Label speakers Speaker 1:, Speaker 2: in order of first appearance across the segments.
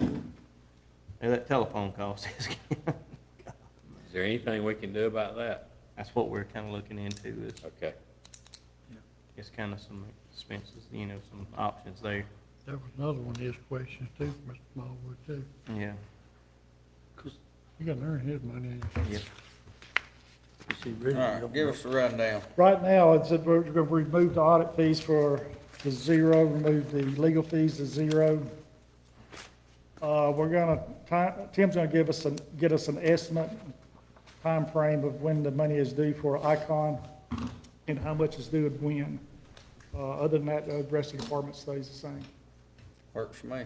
Speaker 1: And that telephone cost is,
Speaker 2: Is there anything we can do about that?
Speaker 1: that's what we're kind of looking into, is,
Speaker 2: Okay.
Speaker 1: is kind of some expenses, you know, some options there.
Speaker 3: That was another one of his questions too, Mr. Smallwood too.
Speaker 1: Yeah.
Speaker 3: You gotta earn his money.
Speaker 1: Yeah.
Speaker 4: All right, give us the rundown.
Speaker 5: Right now, it's, we're gonna remove the audit fees for the zero, remove the legal fees to zero. Uh, we're gonna, ti- Tim's gonna give us, an get us an estimate, time frame of when the money is due for Icon and how much is due and when. Uh, other than that, the rest of the department stays the same.
Speaker 4: Works for me.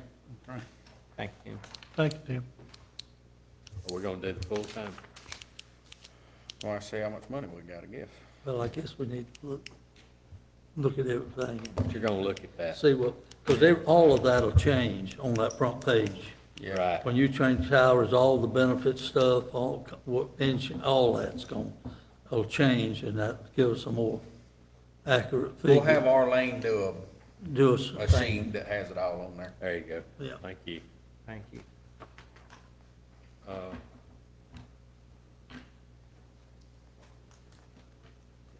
Speaker 1: Thank you.
Speaker 3: Thank you, Tim.
Speaker 2: Are we gonna do the full time?
Speaker 4: Want to see how much money we gotta give.
Speaker 6: Well, I guess we need to look, look at everything and
Speaker 2: You're gonna look at that,
Speaker 6: see what, because all of that'll change on that front page.
Speaker 2: right?
Speaker 6: When you change salaries, all the benefit stuff, all, co- what, insu- all that's going, will change, and that gives us a more accurate
Speaker 4: We'll have
Speaker 6: figure.
Speaker 4: Arlene do
Speaker 6: Do us
Speaker 4: a,
Speaker 6: a
Speaker 4: a
Speaker 6: thing.
Speaker 4: sheet that has it all on there.
Speaker 2: There you go.
Speaker 6: Yeah.
Speaker 2: Thank you.
Speaker 1: Thank you.
Speaker 2: Uh,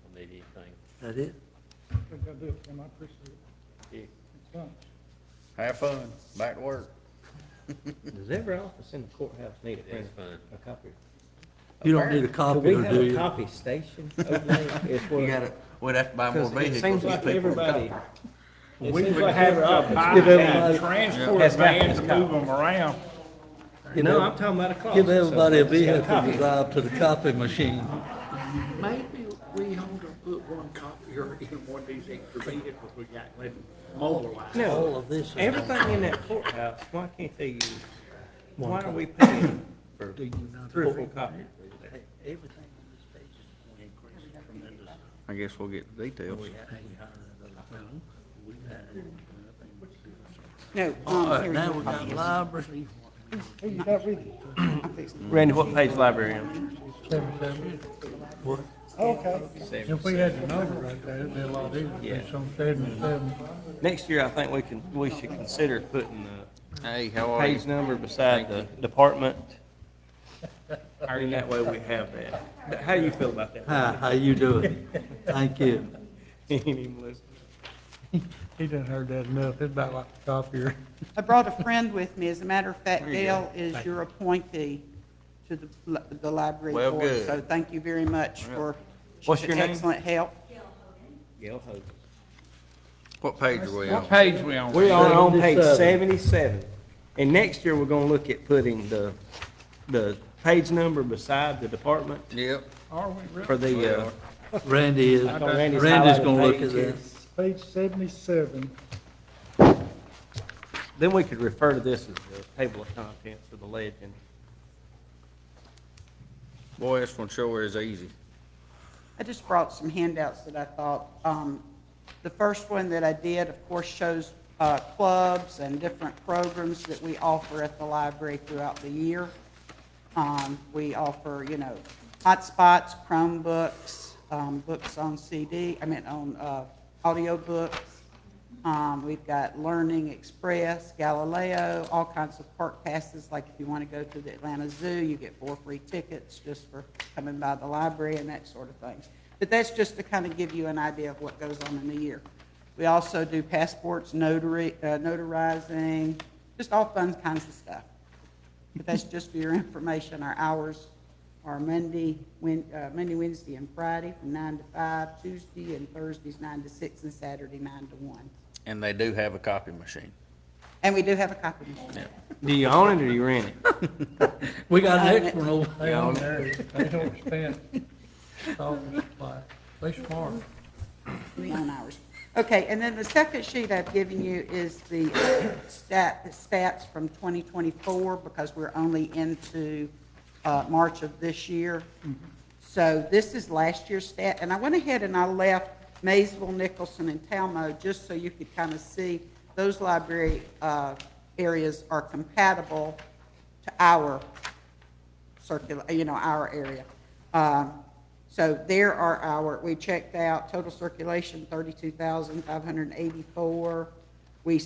Speaker 2: Don't need anything.
Speaker 6: That it?
Speaker 5: Gotta do it, Tim, I appreciate it. It's done.
Speaker 4: Have fun, back to work.
Speaker 1: Does every office in the courthouse need a
Speaker 2: It is
Speaker 1: printer,
Speaker 2: fine.
Speaker 1: a copy?
Speaker 6: You don't need a
Speaker 1: Do
Speaker 6: copy,
Speaker 1: we
Speaker 6: or
Speaker 1: have
Speaker 6: do
Speaker 1: a
Speaker 6: you?
Speaker 1: copy station over there? It's where-
Speaker 4: we'd have to buy
Speaker 1: 'cause It seems like everybody, it
Speaker 7: We
Speaker 1: seems
Speaker 7: would
Speaker 1: like
Speaker 7: have
Speaker 1: every
Speaker 7: a
Speaker 1: office.
Speaker 6: Give
Speaker 7: buy-down
Speaker 6: everybody-
Speaker 7: transport
Speaker 1: Has got
Speaker 7: van
Speaker 1: his
Speaker 7: to
Speaker 1: copy.
Speaker 7: move them around.
Speaker 6: give
Speaker 1: No,
Speaker 6: ev-
Speaker 1: I'm talking about a closet.
Speaker 6: Give everybody a
Speaker 1: somewhere. It's got copy.
Speaker 6: vehicle to drive to the copy machine.
Speaker 7: Maybe we ought to put one copier in one of these extra vehicles we got, let mobilize.
Speaker 6: All
Speaker 1: No,
Speaker 6: of this is
Speaker 1: everything in that courthouse, why can't they use, why are we paying for three or four copies?
Speaker 6: Everything on this page is going to increase tremendously.
Speaker 4: I guess we'll get the details.
Speaker 8: No.
Speaker 6: All
Speaker 8: um,
Speaker 6: right,
Speaker 8: here we
Speaker 6: now
Speaker 8: go.
Speaker 6: we got library.
Speaker 8: Hey, you got rid of it.
Speaker 1: Randy, what page library am
Speaker 3: Seventy-seven.
Speaker 6: What?
Speaker 8: Okay.
Speaker 3: If we had the number right there, it'd be a lot easier. It's on seventy-seven.
Speaker 1: Next year, I think we can, we should consider putting the
Speaker 4: Hey, how are you?
Speaker 1: page number beside the department. And that way we have that. How do you feel about that?
Speaker 6: Hi, how you doing? Thank you.
Speaker 1: Any Melissa?
Speaker 3: He done heard that enough. It's about like the copier.
Speaker 8: I brought a friend with me. As a matter of fact, Dale is your appointee to the, li- the library
Speaker 4: Well,
Speaker 8: board.
Speaker 4: good.
Speaker 8: So thank you very much for
Speaker 1: What's your name?
Speaker 8: excellent help.
Speaker 1: Gail Hogan.
Speaker 4: What page are we on?
Speaker 7: What page we on?
Speaker 1: We are on page
Speaker 6: 77.
Speaker 1: seventy-seven, and next year, we're gonna look at putting the, the page number beside the department
Speaker 4: Yep.
Speaker 7: Are we really?
Speaker 1: for the, uh.
Speaker 6: Randy is,
Speaker 1: on Randy's
Speaker 6: Randy's
Speaker 1: highlighted
Speaker 6: gonna look at
Speaker 1: page
Speaker 6: that.
Speaker 1: here.
Speaker 5: Page seventy-seven.
Speaker 1: Then we could refer to this as the table of contents or the legend.
Speaker 4: Boy, this one sure is easy.
Speaker 8: I just brought some handouts that I thought, um, the first one that I did, of course, shows, uh, clubs and different programs that we offer at the library throughout the year. Um, we offer, you know, hotspots, Chromebooks, um, books on CD, I mean, on, uh, audiobooks. Um, we've got Learning Express, Galileo, all kinds of park passes, like if you want to go to the Atlanta Zoo, you get four free tickets just for coming by the library and that sort of thing. But that's just to kind of give you an idea of what goes on in the year. We also do passports, notary, uh, notarizing, just all fun kinds of stuff. But that's just for your information. Our hours are Monday, Wed- uh, Monday, Wednesday, and Friday from nine to five, Tuesday and Thursdays nine to six, and Saturday nine to one.
Speaker 4: And they do have a copy machine.
Speaker 8: And we do have a copy machine.
Speaker 1: Do you own it or you rent it?
Speaker 6: We got
Speaker 8: Uh,
Speaker 6: an extra one over
Speaker 3: They on there. They don't spend. It's all supplies. They smart.
Speaker 8: We own ours. Okay, and then the second sheet I've given you is the uh, stat, stats from 2024, because we're only into uh, March of this year. So this is last year's stat, and I went ahead and I left Maysville, Nicholson, and Talmo, just so you could kind of see those library uh, areas are compatible to our circula, you know, our area. Um, So there are our, we checked out total circulation, thirty-two thousand, five hundred and eighty-four.